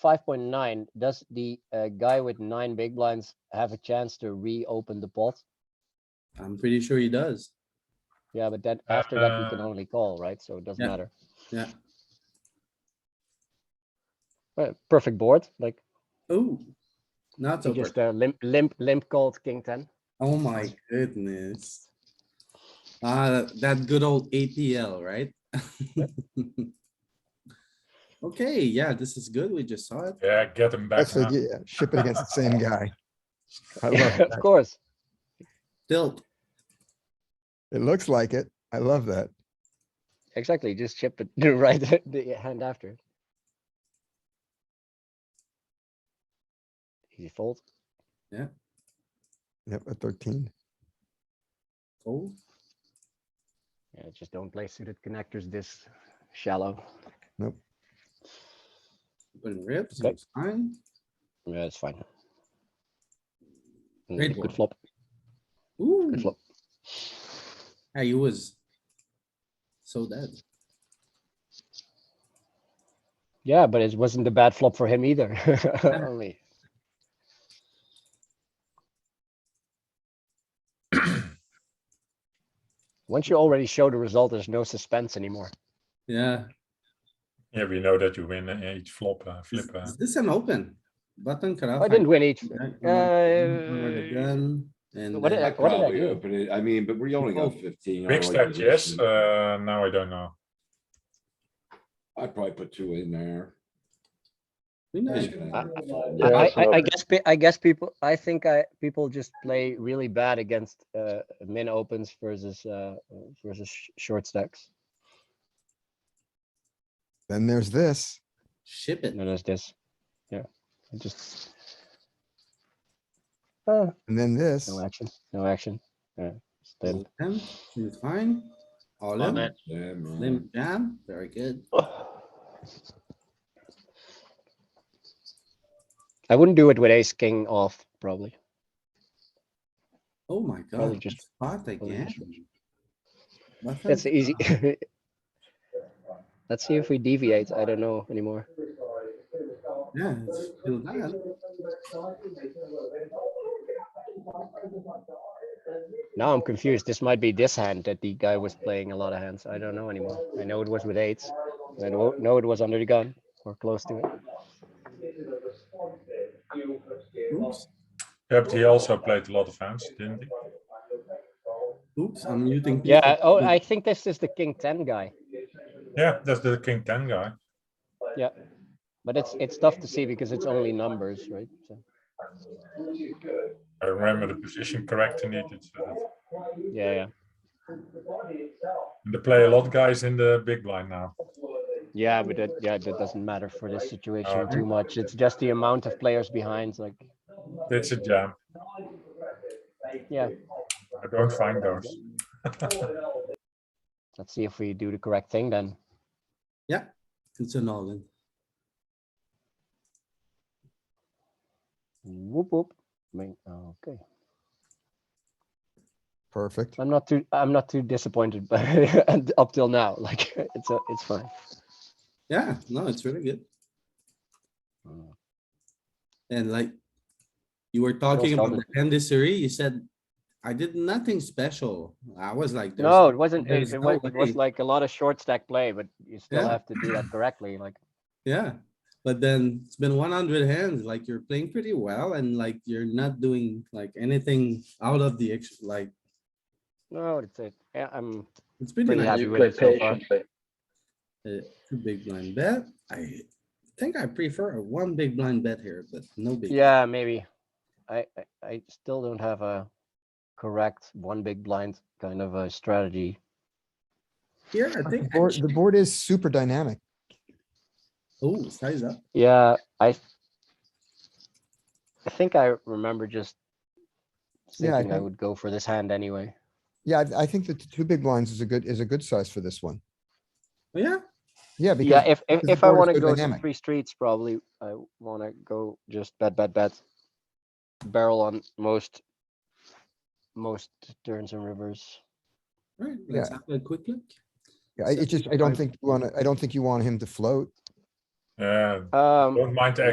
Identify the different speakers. Speaker 1: five point nine, does the uh, guy with nine big blinds have a chance to reopen the pot?
Speaker 2: I'm pretty sure he does.
Speaker 1: Yeah, but then
Speaker 3: Uh,
Speaker 1: after that, we can only call, right? So it doesn't
Speaker 2: yeah.
Speaker 1: matter.
Speaker 2: Yeah.
Speaker 1: Uh, perfect board, like
Speaker 2: Oh, not
Speaker 1: he
Speaker 2: so
Speaker 1: just
Speaker 2: bad.
Speaker 1: uh, limp, limp, limp called king ten.
Speaker 2: Oh my goodness. Ah, that good old ATL, right? Okay, yeah, this is good. We just saw it.
Speaker 3: Yeah, get him back
Speaker 4: That's it,
Speaker 3: now.
Speaker 4: yeah, ship it against the same guy. I love
Speaker 1: of
Speaker 4: that.
Speaker 1: course.
Speaker 2: Tilt.
Speaker 4: It looks like it. I love that.
Speaker 1: Exactly, just chip it the right the hand after. Easy fold.
Speaker 4: Yep, a thirteen.
Speaker 2: Fold.
Speaker 1: Yeah, just don't play suited connectors this shallow.
Speaker 2: Open rips,
Speaker 1: Okay.
Speaker 2: it's fine.
Speaker 1: Yeah, it's fine. Mm,
Speaker 2: Great
Speaker 1: it Could
Speaker 2: board.
Speaker 1: flop,
Speaker 2: Ooh,
Speaker 1: could flop.
Speaker 2: yeah, he was. So dead.
Speaker 1: Yeah, but it wasn't a bad flop for him either. Only Once you already show the result, there's no suspense anymore.
Speaker 2: Yeah.
Speaker 3: Yeah, we know that you win uh, each flop, uh,
Speaker 2: Is-
Speaker 3: flip. Uh,
Speaker 2: Is this an open? Button cutoff?
Speaker 1: I didn't win each. Uh, what
Speaker 2: And
Speaker 1: did
Speaker 2: then-
Speaker 5: I
Speaker 1: Like, what did I
Speaker 5: probably
Speaker 1: do?
Speaker 5: open it. I mean, but we only got
Speaker 2: Oh,
Speaker 5: fifteen. I
Speaker 3: big
Speaker 5: like
Speaker 3: stack,
Speaker 5: the
Speaker 3: yes.
Speaker 5: risk.
Speaker 3: Uh, now I don't know.
Speaker 5: I probably put two in there.
Speaker 2: we know.
Speaker 5: He's gonna have to fold.
Speaker 1: I,
Speaker 3: Yeah,
Speaker 1: I, I- I
Speaker 3: so-
Speaker 1: guess, pe- I guess people, I think I, people just play really bad against, uh, min opens versus, uh, versus sh- short stacks.
Speaker 4: Then there's this.
Speaker 2: Ship it.
Speaker 1: And then there's this, yeah, it just. Uh,
Speaker 4: And then this.
Speaker 1: no action, no action, yeah, it's dead.
Speaker 2: Limp, It's fine. All
Speaker 1: Love
Speaker 2: in.
Speaker 1: it.
Speaker 5: Yeah, man.
Speaker 2: Limp jam, very good.
Speaker 1: I wouldn't do it with ace king off, probably.
Speaker 2: Oh my
Speaker 1: Probably
Speaker 2: god,
Speaker 1: just-
Speaker 2: spot
Speaker 1: probably
Speaker 2: again.
Speaker 1: just-
Speaker 2: Button.
Speaker 1: That's the easy. Let's see if we deviate, I don't know anymore.
Speaker 2: Yeah, it's still bad.
Speaker 1: Now I'm confused. This might be this hand that the guy was playing a lot of hands. I don't know anymore. I know it was with eights. I know, know it was under the gun or close to it.
Speaker 2: Oops,
Speaker 3: Yeah, but he also played a lot of hands, didn't he?
Speaker 2: oops, I'm muting.
Speaker 1: Yeah.
Speaker 2: people.
Speaker 1: Oh, I think this is the king ten guy,
Speaker 3: Yeah, that's the king ten guy.
Speaker 1: but it's it's tough to see because it's only numbers, right? So,
Speaker 3: I remember the position correct in it. It's, uh,
Speaker 1: yeah, yeah,
Speaker 3: and they play a lot guys in the big blind now.
Speaker 1: yeah. But that yeah, that doesn't matter for this situation
Speaker 3: Okay.
Speaker 1: too much. It's just the amount of players behind. Like
Speaker 3: It's a jam.
Speaker 1: yeah.
Speaker 3: I don't find those.
Speaker 1: Let's see if we do the correct thing then.
Speaker 2: It's an all in.
Speaker 1: Whoop whoop. I mean, okay.
Speaker 4: Perfect.
Speaker 1: I'm not too I'm not too disappointed, but and up till now, like it's a, it's fine.
Speaker 2: Yeah, no, it's really good. And like, you were talking about the
Speaker 1: solid.
Speaker 2: conditionary, you said, I did nothing special. I was like. there's
Speaker 1: No, it wasn't. It,
Speaker 2: there's
Speaker 1: it
Speaker 2: no
Speaker 1: was, it was
Speaker 2: way.
Speaker 1: like a lot of short stack play, but you still
Speaker 2: Yeah.
Speaker 1: have to do that correctly. Like
Speaker 2: Yeah, but then it's been one hundred hands, like you're playing pretty well and like you're not doing like anything out of the, ex- like,
Speaker 1: no, it's it. Yeah, I'm
Speaker 2: it's pretty
Speaker 1: pretty
Speaker 2: nice.
Speaker 1: happy with it so far.
Speaker 2: Uh, Two big blind bet. I think I prefer a one big blind bet here, but no big.
Speaker 1: Yeah, maybe. I, I I still don't have a correct one big blind kind of a strategy.
Speaker 2: Here, I
Speaker 4: The
Speaker 2: think,
Speaker 4: board, the board is super dynamic.
Speaker 2: oh, size up.
Speaker 1: Yeah, I. I think I remember just
Speaker 4: Yeah, I
Speaker 1: thinking I
Speaker 4: think-
Speaker 1: would go for this hand anyway.
Speaker 4: Yeah, I, I think that the two big blinds is a good, is a good size for this one.
Speaker 2: Oh, Yeah,
Speaker 4: Yeah, because
Speaker 1: Yeah, if if,
Speaker 4: because the
Speaker 1: if I
Speaker 4: board is
Speaker 1: want
Speaker 4: so
Speaker 1: to go to
Speaker 4: dynamic.
Speaker 1: three streets, probably I want to go just bet, bet, bet, barrel on most most turns and rivers.
Speaker 2: right, let's have a quick look.
Speaker 4: Yeah, I- it just, I don't think, you wanna, I don't think you want him to float.
Speaker 3: Yeah,
Speaker 1: Um,
Speaker 3: don't mind the